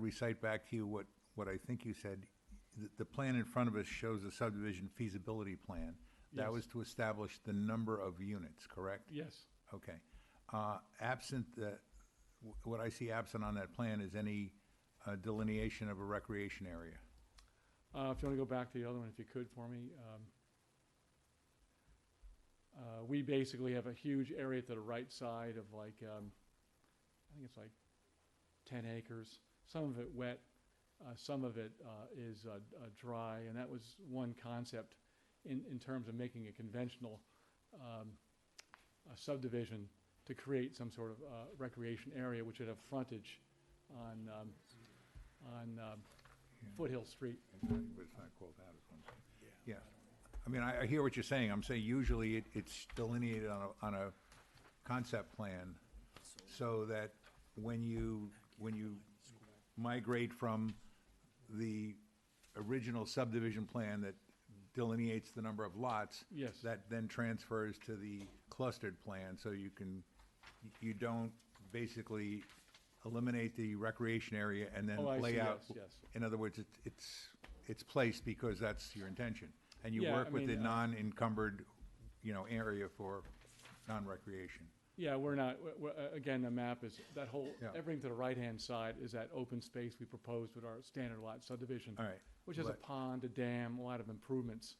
recite back to you what, what I think you said. The, the plan in front of us shows the subdivision feasibility plan. That Yes. was to establish the number of units, correct? Yes, Okay. Uh, Absent the, wh- what I see absent on that plan is any uh, delineation of a recreation area. uh, if you want to go back to the other one, if you could for me. um, uh, We basically have a huge area to the right side of like, um, I think it's like ten acres, some of it wet, uh, some of it uh, is uh, d- uh, dry, and that was one concept in, in terms of making a conventional um, a subdivision to create some sort of uh, recreation area which would have frontage on, um, on um, Foothill Street. But it's not called out as one. Yeah. I mean, I, I hear what you're saying. I'm saying usually it, it's delineated on a, on a concept plan so that when you, when you migrate from the original subdivision plan that delineates the number of lots. Yes. That then transfers to the clustered plan, so you can, you don't basically eliminate the recreation area and then Oh, I see, lay out. yes, yes. In other words, it- it's, it's placed because that's your intention. And you Yeah, I work with the mean, uh, non-encumbered, you know, area for non-recreation. Yeah, we're not, we're- we're, uh, again, the map is, that whole, Yeah. everything to the right-hand side is that open space we proposed with our standard lot subdivision. All right, Which has a but- pond, a dam, a lot of improvements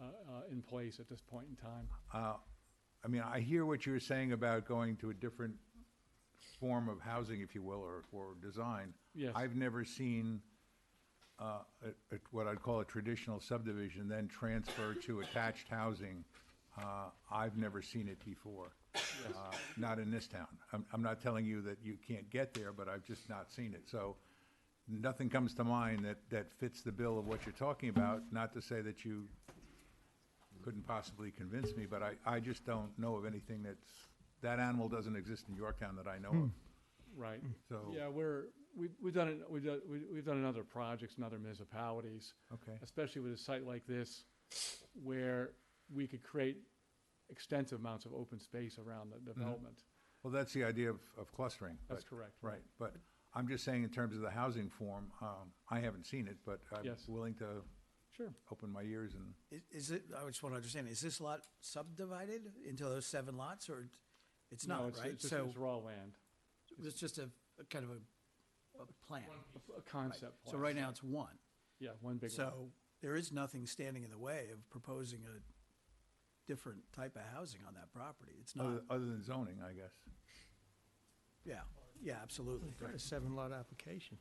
uh, uh, in place at this point in time. Uh, I mean, I hear what you're saying about going to a different form of housing, if you will, or, or design. Yes. I've never seen, uh, a, a, what I'd call a traditional subdivision, then transfer to attached housing. Uh, I've never seen it before. Uh, Not in this town. I'm, I'm not telling you that you can't get there, but I've just not seen it. So nothing comes to mind that, that fits the bill of what you're talking about, not to say that you couldn't possibly convince me, but I, I just don't know of anything that's, that animal doesn't exist in Yorktown that I know of. Right. Hmm, So- Yeah, we're, we've, we've done it, we've done, we- we've done it in other projects in other municipalities. Okay. Especially with a site like this, where we could create extensive amounts of open space around Mm-hmm. the development. Well, that's the idea of, of clustering. That's but- correct. Right, but I'm just saying in terms of the housing form, um, I haven't seen it, but I'm Yes. willing to Sure. open my ears and, Is, is it, I just want to understand, is this lot subdivided into those seven lots or it- it's No, not, right? It's just- So it's raw land, it's just a, a kind of a, a plan. a f- a concept. So plan. right now it's one. Yeah, one big one. So there is nothing standing in the way of proposing a different type of housing on that property. It's not, other, other than zoning, I guess. yeah, yeah, absolutely. Got a seven lot application.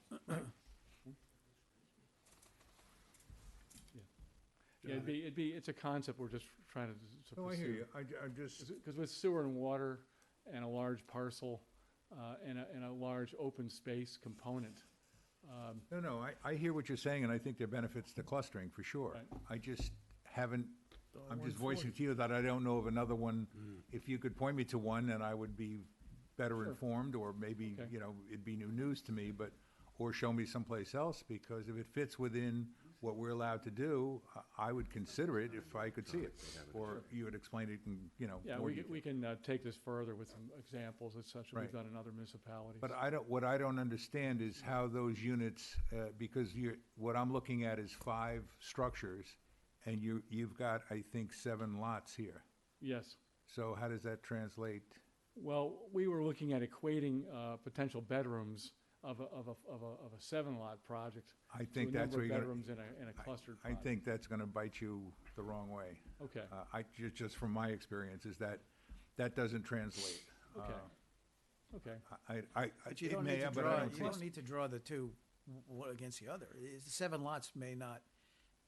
Yeah, it'd be, it'd be, it's a concept we're just trying to s- to pursue. No, Oh, I hear you. I, am just, Because with sewer and water and a large parcel uh, and a, and a large open space component, um, no, no, I, I hear what you're saying and I think there are benefits to clustering for sure. Right. I just haven't, I'm just voicing to you that I don't know of another one. If you could point me to one, then I would be better informed or maybe, Okay. you know, it'd be new news to me, but, or show me someplace else because if it fits within what we're allowed to do, I, I would consider it if I could see it. Or you would explain it in, you know, yeah, more we, can- detail. we can uh, take this further with some examples and such that Right. we've done in other municipalities. But I don't, what I don't understand is how those units, uh, because you're, what I'm looking at is five structures, and you, you've got, I think, seven lots here. Yes. So how does that translate? Well, we were looking at equating uh, potential bedrooms of a, of a, of a, of a seven-lot project. I think that's where you're To a gonna- number of bedrooms in a, in a clustered I project. think that's gonna bite you the wrong way. Okay, Uh, I, ju- just from my experience, is that, that doesn't translate. okay, Uh, okay. I, I, I- But you it don't may, need to but I draw, don't you see it. don't need to draw the two w- one against the other. It's- Seven lots may not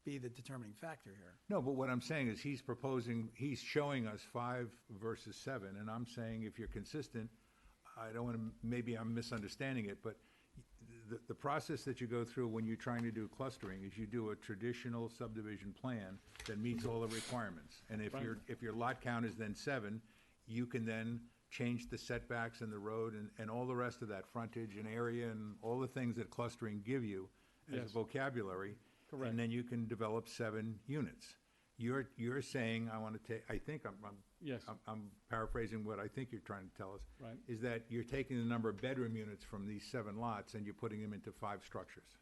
be the determining factor here. No, but what I'm saying is he's proposing, he's showing us five versus seven, and I'm saying if you're consistent, I don't want to, maybe I'm misunderstanding it, but the, the process that you go through when you're trying to do clustering is you do a traditional subdivision plan that meets all the requirements. And if your, if your lot count is then seven, you can then change the setbacks and the road and, and all the rest of that frontage and area and all the things that clustering give you as a Yes. vocabulary. Correct. And then you can develop seven units. You're, you're saying, I want to take, I think I'm, I'm- Yes, I'm, I'm paraphrasing what I think you're trying to tell us, right. is that you're taking the number of bedroom units from these seven lots and you're putting them into five structures.